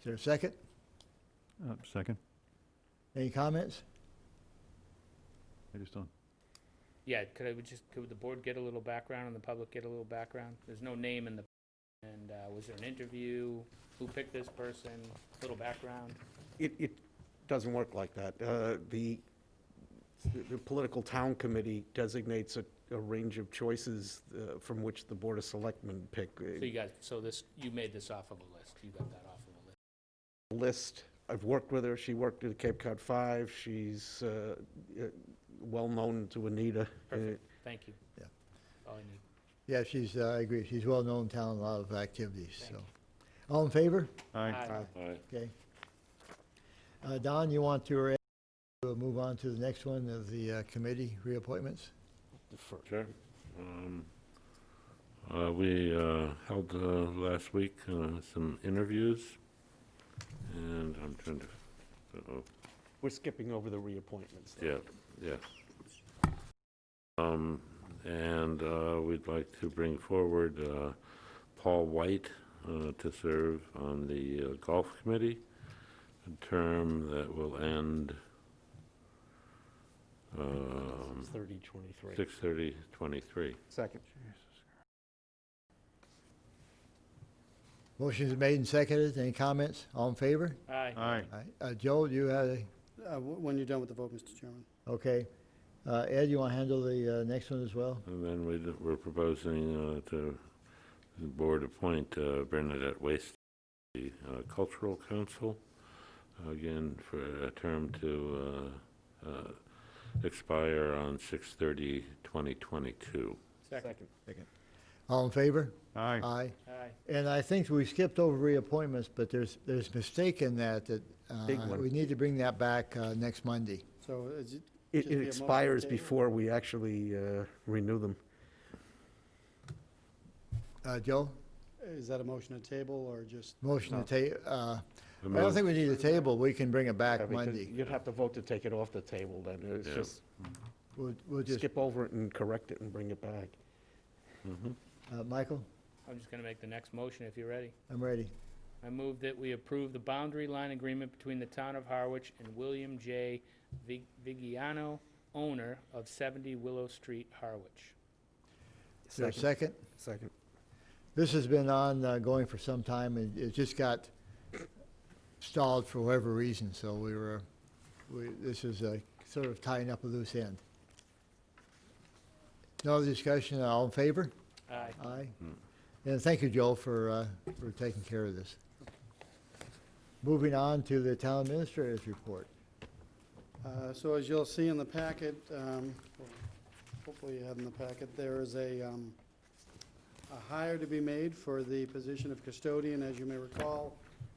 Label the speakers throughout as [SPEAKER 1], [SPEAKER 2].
[SPEAKER 1] Is there a second?
[SPEAKER 2] Uh, Second,
[SPEAKER 1] Any comments?
[SPEAKER 2] I just don't,
[SPEAKER 3] Yeah, could I would just, could the board get a little background and the public get a little background? There's no name in the, and uh, was there an interview? Who picked this person? Little background?
[SPEAKER 4] It, it doesn't work like that. Uh, The, the political town committee designates a, a range of choices uh, from which the Board of Selectmen pick.
[SPEAKER 3] So you guys, so this, you made this off of a list. You got that off of a list.
[SPEAKER 4] List, I've worked with her, she worked at Cape Cod Five, she's uh, uh, well-known to Anita. Uh,
[SPEAKER 3] Perfect. Thank you.
[SPEAKER 1] Yeah.
[SPEAKER 3] All I need.
[SPEAKER 1] Yeah, she's, uh, I agree, she's well-known in town, a lot of activities, so. All in favor?
[SPEAKER 2] aye,
[SPEAKER 3] Aye.
[SPEAKER 1] Okay. Uh, Don, you want to re- to move on to the next one of the uh, committee reappointments?
[SPEAKER 5] Sure. Um, uh, We uh, held uh, last week uh, some interviews, and I'm trying to, uh-oh,
[SPEAKER 4] We're skipping over the reappointments.
[SPEAKER 5] yeah, yeah. Um, And uh, we'd like to bring forward uh, Paul White uh, to serve on the uh, Golf Committee, a term that will end um,
[SPEAKER 4] Thirty twenty-three.
[SPEAKER 5] 6/30/23.
[SPEAKER 4] Second.
[SPEAKER 1] Motion's made and seconded, any comments? All in favor?
[SPEAKER 3] Aye.
[SPEAKER 2] aye,
[SPEAKER 1] All right. Uh, Joe, you had a,
[SPEAKER 6] Uh, wh- When you're done with the vote, Mr. Chairman.
[SPEAKER 1] okay. Uh, Ed, you want to handle the uh, next one as well?
[SPEAKER 5] And then we, d- we're proposing uh, to the board appoint uh, Bernadette Waste to the uh, Cultural Council, again, for a term to uh, uh, expire on 6/30/2022.
[SPEAKER 3] Second.
[SPEAKER 1] All in favor?
[SPEAKER 2] aye.
[SPEAKER 1] Aye.
[SPEAKER 3] Aye.
[SPEAKER 1] And I think we skipped over reappointments, but there's, there's mistake in that, that uh,
[SPEAKER 4] Big one.
[SPEAKER 1] we need to bring that back uh, next Monday.
[SPEAKER 6] So is it,
[SPEAKER 4] It
[SPEAKER 6] Just be a
[SPEAKER 4] it
[SPEAKER 6] motion
[SPEAKER 4] expires
[SPEAKER 6] table?
[SPEAKER 4] before we actually uh, renew them.
[SPEAKER 1] Uh, Joe,
[SPEAKER 6] is that a motion to table or just,
[SPEAKER 1] motion to ta, uh,
[SPEAKER 5] I
[SPEAKER 1] I don't
[SPEAKER 5] move-
[SPEAKER 1] think we need a table, we can bring it
[SPEAKER 4] Yeah,
[SPEAKER 1] back
[SPEAKER 4] because
[SPEAKER 1] Monday.
[SPEAKER 4] You'd have to vote to take it off the table then. It's
[SPEAKER 5] Yeah.
[SPEAKER 4] just,
[SPEAKER 1] We'll, we'll just,
[SPEAKER 4] skip over it and correct it and bring it back.
[SPEAKER 1] uh, Michael,
[SPEAKER 3] I'm just going to make the next motion if you're ready.
[SPEAKER 1] I'm ready.
[SPEAKER 3] I move that we approve the boundary line agreement between the town of Harwich and William J. Vig- Vigiano, owner of 70 Willow Street, Harwich.
[SPEAKER 1] Is there a second?
[SPEAKER 4] Second.
[SPEAKER 1] This has been on, uh, going for some time, and it just got stalled for whatever reason, so we were, we, this is, uh, sort of tying up a loose end. No other discussion, all in favor?
[SPEAKER 3] Aye.
[SPEAKER 1] Aye. And thank you, Joe, for, uh, for taking care of this. Moving on to the town administrator's report.
[SPEAKER 6] uh, so as you'll see in the packet, um, well, hopefully you have in the packet, there is a, um, a hire to be made for the position of custodian. As you may recall,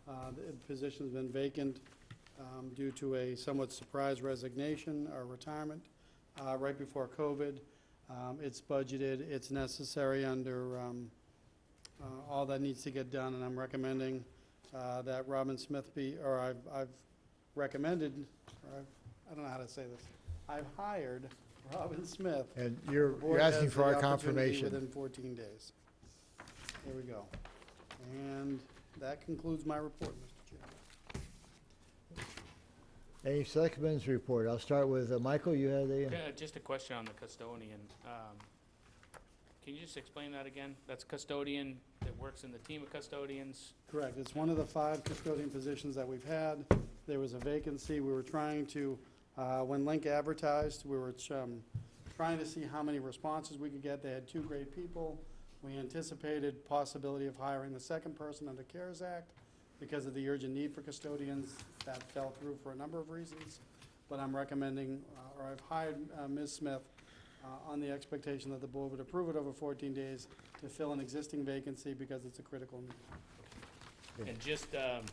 [SPEAKER 6] uh, the position's been vacant um, due to a somewhat surprise resignation or retirement uh, right before COVID. Um, It's budgeted, it's necessary under um, uh, all that needs to get done, and I'm recommending uh, that Robin Smith be, or I've- I've recommended, or I've- I don't know how to say this, I've hired Robin Smith
[SPEAKER 1] And you're, you're
[SPEAKER 6] the board
[SPEAKER 1] asking
[SPEAKER 6] has
[SPEAKER 1] for
[SPEAKER 6] the
[SPEAKER 1] our
[SPEAKER 6] opportunity
[SPEAKER 1] confirmation.
[SPEAKER 6] Within 14 days. There we go. And that concludes my report, Mr. Chairman.
[SPEAKER 1] Any selectmen's report? I'll start with, uh, Michael, you had a,
[SPEAKER 3] Uh, Just a question on the custodian. Um, Can you just explain that again? That's custodian that works in the team of custodians?
[SPEAKER 6] Correct. It's one of the five custodian positions that we've had. There was a vacancy. We were trying to, uh, when Link advertised, we were um, trying to see how many responses we could get. They had two great people. We anticipated possibility of hiring the second person under CARES Act because of the urgent need for custodians. That fell through for a number of reasons. But I'm recommending, uh, or I've hired uh, Ms. Smith uh, on the expectation that the board would approve it over 14 days to fill an existing vacancy because it's a critical need.
[SPEAKER 3] And just um,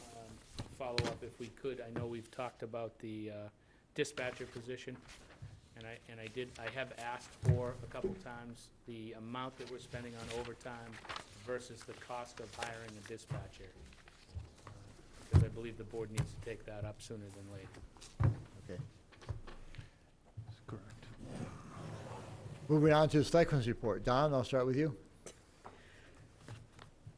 [SPEAKER 3] um, follow up if we could, I know we've talked about the uh, dispatcher position, and I, and I did, I have asked for a couple times the amount that we're spending on overtime versus the cost of hiring a dispatcher. Uh, Because I believe the board needs to take that up sooner than later.
[SPEAKER 1] okay.
[SPEAKER 2] That's Correct.
[SPEAKER 1] Moving on to the selectmen's report. Don, I'll start with you.